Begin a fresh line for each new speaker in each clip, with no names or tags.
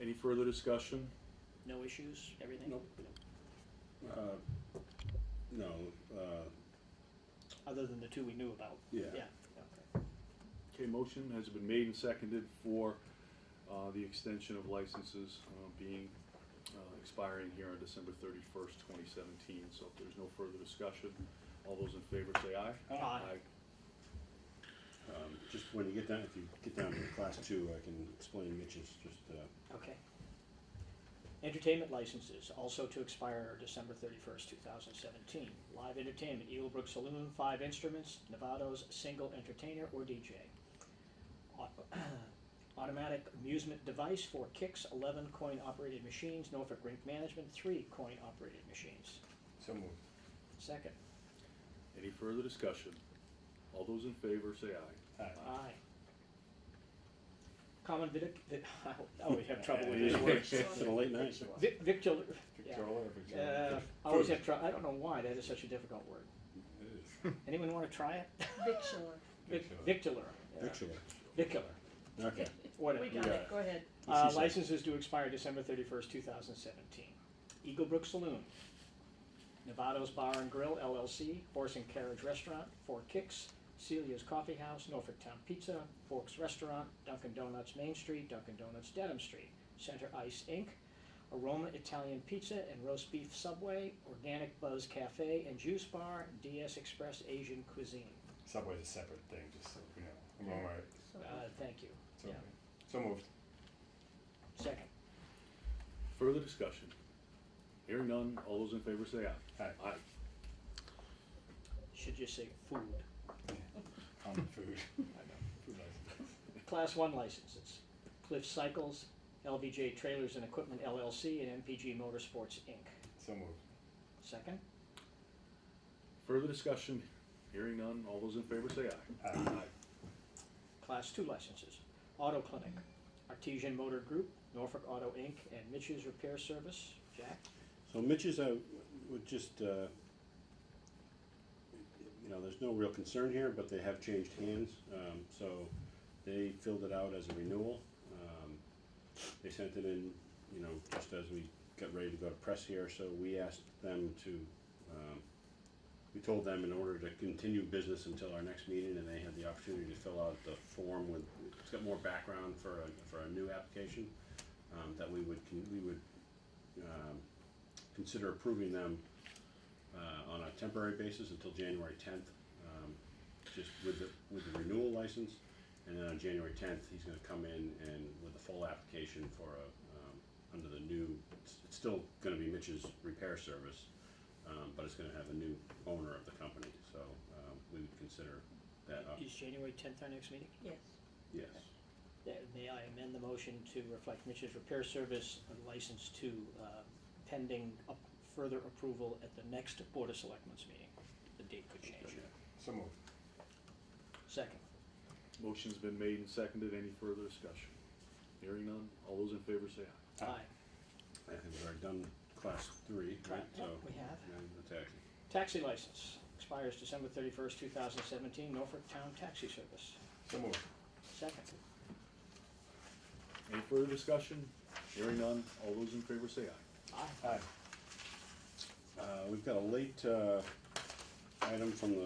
Any further discussion?
No issues, everything?
Nope. Uh, No, uh,
Other than the two we knew about?
Yeah.
Yeah, okay.
Okay, motion has been made and seconded for uh, the extension of licenses uh, being uh, expiring here on December 31st, 2017. So if there's no further discussion, all those in favor say aye.
Aye.
um, just when you get down, if you get down to class two, I can explain Mitch's, just, uh,
Okay. Entertainment licenses, also to expire December 31st, 2017. Live entertainment, Eagle Brook Saloon, five instruments, Nevado's single entertainer or DJ. Au- Automatic amusement device, four kicks, 11 coin-operated machines, Norfolk Rink Management, three coin-operated machines.
So moved.
Second.
Any further discussion? All those in favor say aye.
Aye.
Aye. Common vidic, vi- I always have trouble with these words.
it's been a late night.
Vic- Victul, yeah.
Victrola or Victrola?
Uh, I always have trouble, I don't know why, that is such a difficult word.
It is.
Anyone want to try it?
Victular.
Vic-
Victular.
Victular. yeah.
Actually,
Vicular,
okay.
We
whatever.
got
Yeah.
it, go ahead.
Uh,
This is-
Licenses do expire December 31st, 2017. Eagle Brook Saloon, Nevado's Bar and Grill LLC, Horse and Carriage Restaurant, Four Kicks, Celia's Coffee House, Norfolk Town Pizza, Forks Restaurant, Dunkin' Donuts Main Street, Dunkin' Donuts Dedham Street, Center Ice Inc., Aroma Italian Pizza and Roast Beef Subway, Organic Buzz Cafe and Juice Bar, DS Express Asian Cuisine.
Subway's a separate thing, just so you know. I'm all right.
Uh, Thank you.
So,
Yeah.
so moved.
Second.
Further discussion? Hearing none, all those in favor say aye.
Aye.
Aye.
Should just say food.
On the food.
I know.
Food license.
Class 1 licenses, Cliff Cycles, LVJ Trailers and Equipment LLC, and MPG Motorsports, Inc.
So moved.
Second?
Further discussion? Hearing none, all those in favor say aye.
Aye.
Class 2 licenses, Auto Clinic, Artesian Motor Group, Norfolk Auto, Inc., and Mitch's Repair Service. Jack?
So Mitch's, I would just, uh, you know, there's no real concern here, but they have changed hands. Um, So they filled it out as a renewal. Um, They sent it in, you know, just as we got ready to go to press here, so we asked them to, um, we told them in order to continue business until our next meeting, and they had the opportunity to fill out the form with, it's got more background for a, for a new application, um, that we would, con- we would um, consider approving them uh, on a temporary basis until January 10th, um, just with the, with the renewal license. And then on January 10th, he's going to come in and with a full application for a, um, under the new, it's it's still going to be Mitch's repair service, um, but it's going to have a new owner of the company. So um, we would consider that, up-
Is January 10th our next meeting?
Yes.
yes.
Yeah, May I amend the motion to reflect Mitch's Repair Service uh, license to uh, pending up- further approval at the next Board of Selectmen's meeting? The date could change.
So moved.
Second?
Motion's been made and seconded. Any further discussion? Hearing none, all those in favor say aye.
Aye.
I think we've already done class three, right?
Yeah,
So
we have.
now the taxi.
Taxi license expires December 31st, 2017, Norfolk Town Taxi Service.
So moved.
Second.
Any further discussion? Hearing none, all those in favor say aye.
Aye.
Aye.
Uh, We've got a late uh, item from the,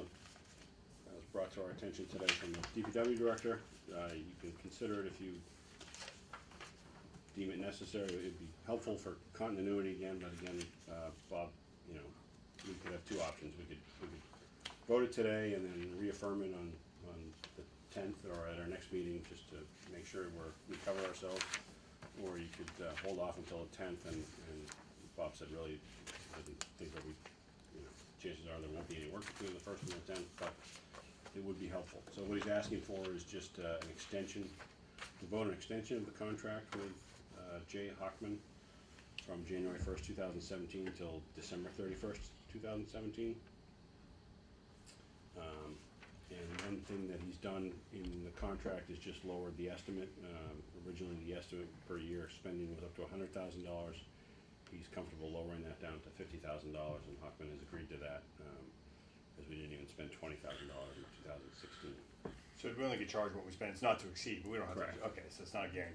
that was brought to our attention today from the DPW director. Uh, You can consider it if you deem it necessary. It'd be helpful for continuity again, but again, uh, Bob, you know, we could have two options. We could, we could vote it today and then reaffirm it on, on the tenth or at our next meeting, just to make sure we're, we cover ourselves. Or you could uh, hold off until the tenth and, and Bob said really, I think that we, you know, chances are there won't be any work between the first and the tenth, but it would be helpful. So what he's asking for is just uh, an extension, to vote an extension of the contract with uh, Jay Hockman from January first, two thousand seventeen till December thirty-first, two thousand seventeen. Um, and one thing that he's done in the contract is just lowered the estimate, um, originally the estimate per year spending was up to hundred thousand dollars. He's comfortable lowering that down to fifty thousand dollars, and Hockman has agreed to that, um, because we didn't even spend twenty thousand dollars in two thousand sixteen.
So we only get charged what we spend. It's not to exceed, but we don't have
Correct.
to. Okay, so it's not a guarantee.